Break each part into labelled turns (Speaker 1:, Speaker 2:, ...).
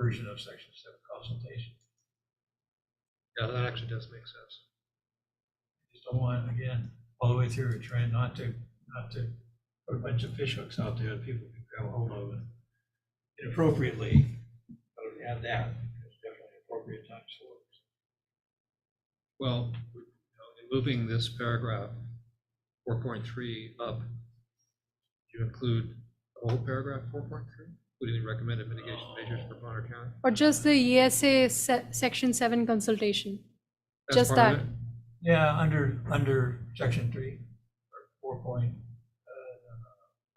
Speaker 1: version of section seven consultation.
Speaker 2: Yeah, that actually does make sense.
Speaker 1: Just don't want, again, all the way through, trying not to, not to put a bunch of fish hooks out there that people can grab hold of inappropriately. I would add that, because definitely appropriate times for it.
Speaker 2: Well, you know, in moving this paragraph, four point three up, you include the whole paragraph, four point three, including the recommended mitigation measures for Bonner County?
Speaker 3: Or just the ESA se- Section 7 consultation.
Speaker 2: That's
Speaker 3: Just
Speaker 2: part of
Speaker 3: that.
Speaker 2: it?
Speaker 1: Yeah, under, under section three, or four point,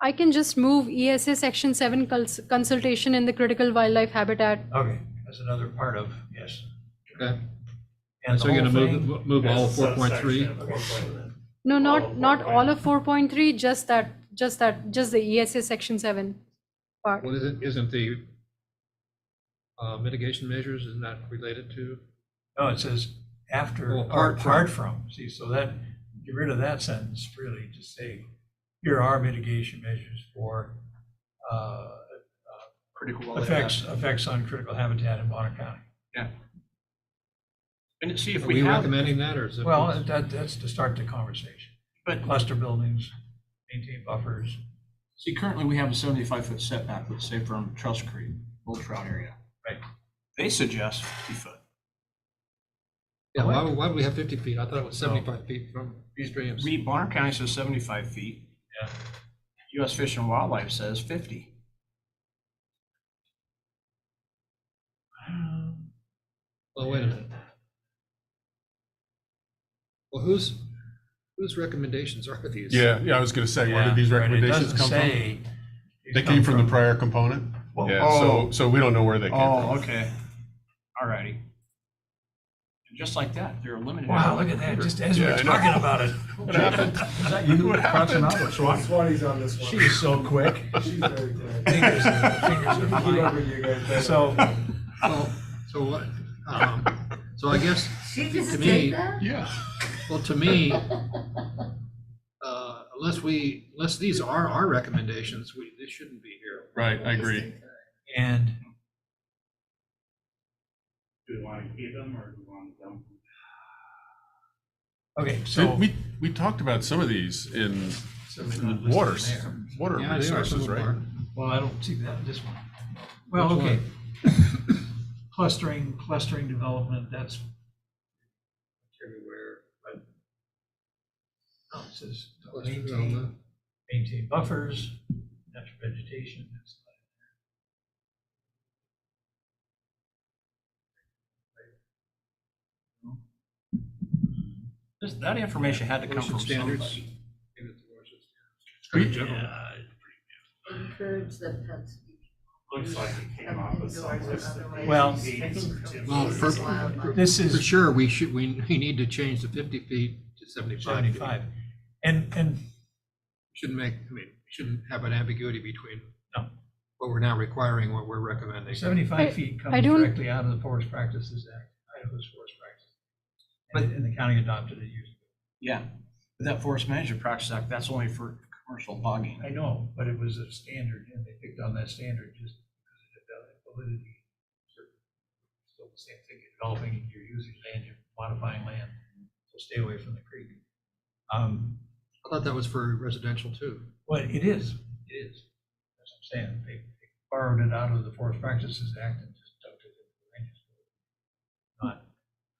Speaker 3: I can just move ESA Section 7 cons- consultation in the critical wildlife habitat.
Speaker 1: okay, that's another part of, yes.
Speaker 2: Okay,
Speaker 1: And
Speaker 2: so
Speaker 1: the
Speaker 2: you're gonna
Speaker 1: whole
Speaker 2: move, move all four point three?
Speaker 1: thing-
Speaker 3: No,
Speaker 4: All
Speaker 3: not,
Speaker 4: of
Speaker 3: not
Speaker 4: 4.3.
Speaker 3: all of 4.3, just that, just that, just the ESA Section 7 part.
Speaker 2: Well, isn't, isn't the uh, mitigation measures, isn't that related to?
Speaker 1: No, it says after or
Speaker 2: Well, apart from.
Speaker 1: apart from, see, so that, get rid of that sentence, really, just say, here are mitigation measures for uh,
Speaker 4: critical wildlife
Speaker 1: effects,
Speaker 4: habitat.
Speaker 1: effects on critical habitat in Bonner County.
Speaker 4: And see if
Speaker 2: Are
Speaker 4: we
Speaker 2: we
Speaker 4: have,
Speaker 2: recommending that, or is it?
Speaker 1: Well, that, that's to start the conversation.
Speaker 4: but
Speaker 1: Cluster buildings, maintain buffers,
Speaker 4: see, currently we have a seventy-five foot setback, let's say from Trust Creek, Old Trout area.
Speaker 1: Right.
Speaker 4: They suggest fifty foot.
Speaker 2: Yeah, why, would- why do we have fifty feet? I thought it was seventy-five feet from these streams.
Speaker 4: Read, Bonner County says seventy-five feet.
Speaker 1: Yeah.
Speaker 4: US Fish and Wildlife says fifty.
Speaker 1: Um,
Speaker 2: Well, wait a minute. Well, whose, whose recommendations are these?
Speaker 5: Yeah, yeah, I was gonna say, where did these
Speaker 1: Yeah, right, it
Speaker 5: recommendations
Speaker 1: doesn't
Speaker 5: come from?
Speaker 1: say these
Speaker 5: They
Speaker 1: come
Speaker 5: came from the prior component?
Speaker 1: Well,
Speaker 5: Yeah, so,
Speaker 4: oh.
Speaker 5: so we don't know where they came from.
Speaker 4: Oh, okay. All righty. And Just like that, they're eliminated.
Speaker 1: Wow, look at that, just as we
Speaker 5: Yeah,
Speaker 1: we're
Speaker 5: I know.
Speaker 1: talking about it.
Speaker 5: What happened?
Speaker 6: Is that you
Speaker 5: What
Speaker 6: crouching
Speaker 5: happened?
Speaker 6: out or Sean?
Speaker 7: Swanee's on this one.
Speaker 6: She's so quick.
Speaker 7: She's very good.
Speaker 1: Fingers are- fingers are
Speaker 7: Keep up
Speaker 1: flying.
Speaker 7: with you guys, man.
Speaker 1: So,
Speaker 2: Well, so what, um, so I guess,
Speaker 8: She just
Speaker 2: To me-
Speaker 8: did that?
Speaker 5: Yeah.
Speaker 2: well, to me, uh, unless we, unless these are our recommendations, we, they shouldn't be here.
Speaker 5: Right, I agree.
Speaker 1: and
Speaker 9: Do we want to keep them or do we want to dump them?
Speaker 1: Okay, so.
Speaker 5: And we, we talked about some of these in
Speaker 1: Certainly not listed
Speaker 5: water,
Speaker 1: in there.
Speaker 5: water
Speaker 2: Yeah, they are, some
Speaker 5: resources,
Speaker 2: of them
Speaker 5: right?
Speaker 2: are.
Speaker 1: Well, I don't see that, this one. Well,
Speaker 2: Which
Speaker 1: okay. Clustering, clustering development, that's everywhere, but. No, Oh, it says
Speaker 2: Cluster
Speaker 1: maintain,
Speaker 2: development.
Speaker 1: maintain buffers, natural vegetation. that's not in
Speaker 4: This- That information had to come
Speaker 2: Ocean
Speaker 4: from
Speaker 2: standards.
Speaker 4: somebody.
Speaker 2: Maybe it's the ocean standards. It's kind of general.
Speaker 8: Encourage the pets. to be
Speaker 9: Looks like it came off of some
Speaker 8: indoors or
Speaker 9: list that they
Speaker 1: Well-
Speaker 9: created.
Speaker 2: Well, for-
Speaker 8: Wildlife.
Speaker 1: there. This
Speaker 2: For
Speaker 1: is
Speaker 2: sure, we should, we, we need to change the fifty feet to seventy-five feet.
Speaker 1: seventy-five, and, and,
Speaker 2: Shouldn't make, I mean, we shouldn't have an ambiguity between
Speaker 1: No.
Speaker 2: what we're now requiring, what we're recommending.
Speaker 1: seventy-five
Speaker 3: I-
Speaker 1: feet
Speaker 3: I
Speaker 1: comes
Speaker 3: don't-
Speaker 1: directly out of the Forest Practices Act, Idaho's Forest Practices. But, and the county adopted it years
Speaker 4: Yeah, but that forest management practice act, that's only for commercial logging.
Speaker 1: I know, but it was a standard, and they picked on that standard just because it had valid validity. Still the same thing, you're developing, you're using land, you're modifying land, so stay away from the creek. Um,
Speaker 2: I thought that was for residential too.
Speaker 1: Well, it is, it is, that's what I'm saying, they they borrowed it out of the Forest Practices Act and just dumped it into the range. Not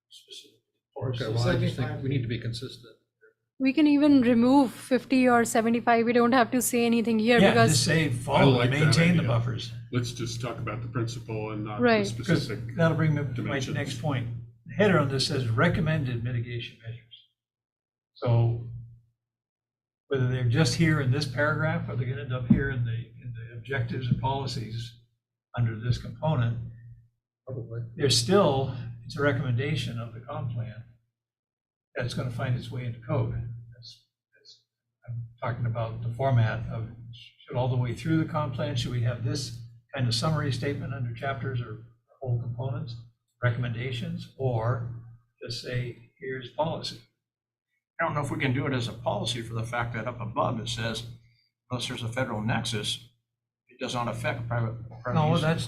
Speaker 1: specific. forest.
Speaker 2: Okay, well, I just think we need to be consistent.
Speaker 3: We can even remove 50 or 75. We don't have to say anything here
Speaker 1: Yeah,
Speaker 3: because
Speaker 1: just say follow,
Speaker 5: like that
Speaker 1: maintain the
Speaker 5: idea.
Speaker 1: buffers.
Speaker 5: Let's just talk about the principle and not the
Speaker 3: Right.
Speaker 1: Because
Speaker 5: specific.
Speaker 1: that'll bring me to my
Speaker 5: dimensions.
Speaker 1: next point. The Header on this says recommended mitigation measures. So whether they're just here in this paragraph, or they're gonna end up here in the, in the objectives and policies under this component,
Speaker 2: Probably.
Speaker 1: there's still, it's a recommendation of the comp plan that's gonna find its way into code. That's, that's, I'm talking about the format of, should all the way through the comp plan, should we have this kind of summary statement under chapters or whole components, recommendations, or just say, here's policy?
Speaker 4: I don't know if we can do it as a policy for the fact that up above it says, unless there's a federal nexus, it does not affect private. private
Speaker 1: No,
Speaker 4: uses.
Speaker 1: that's,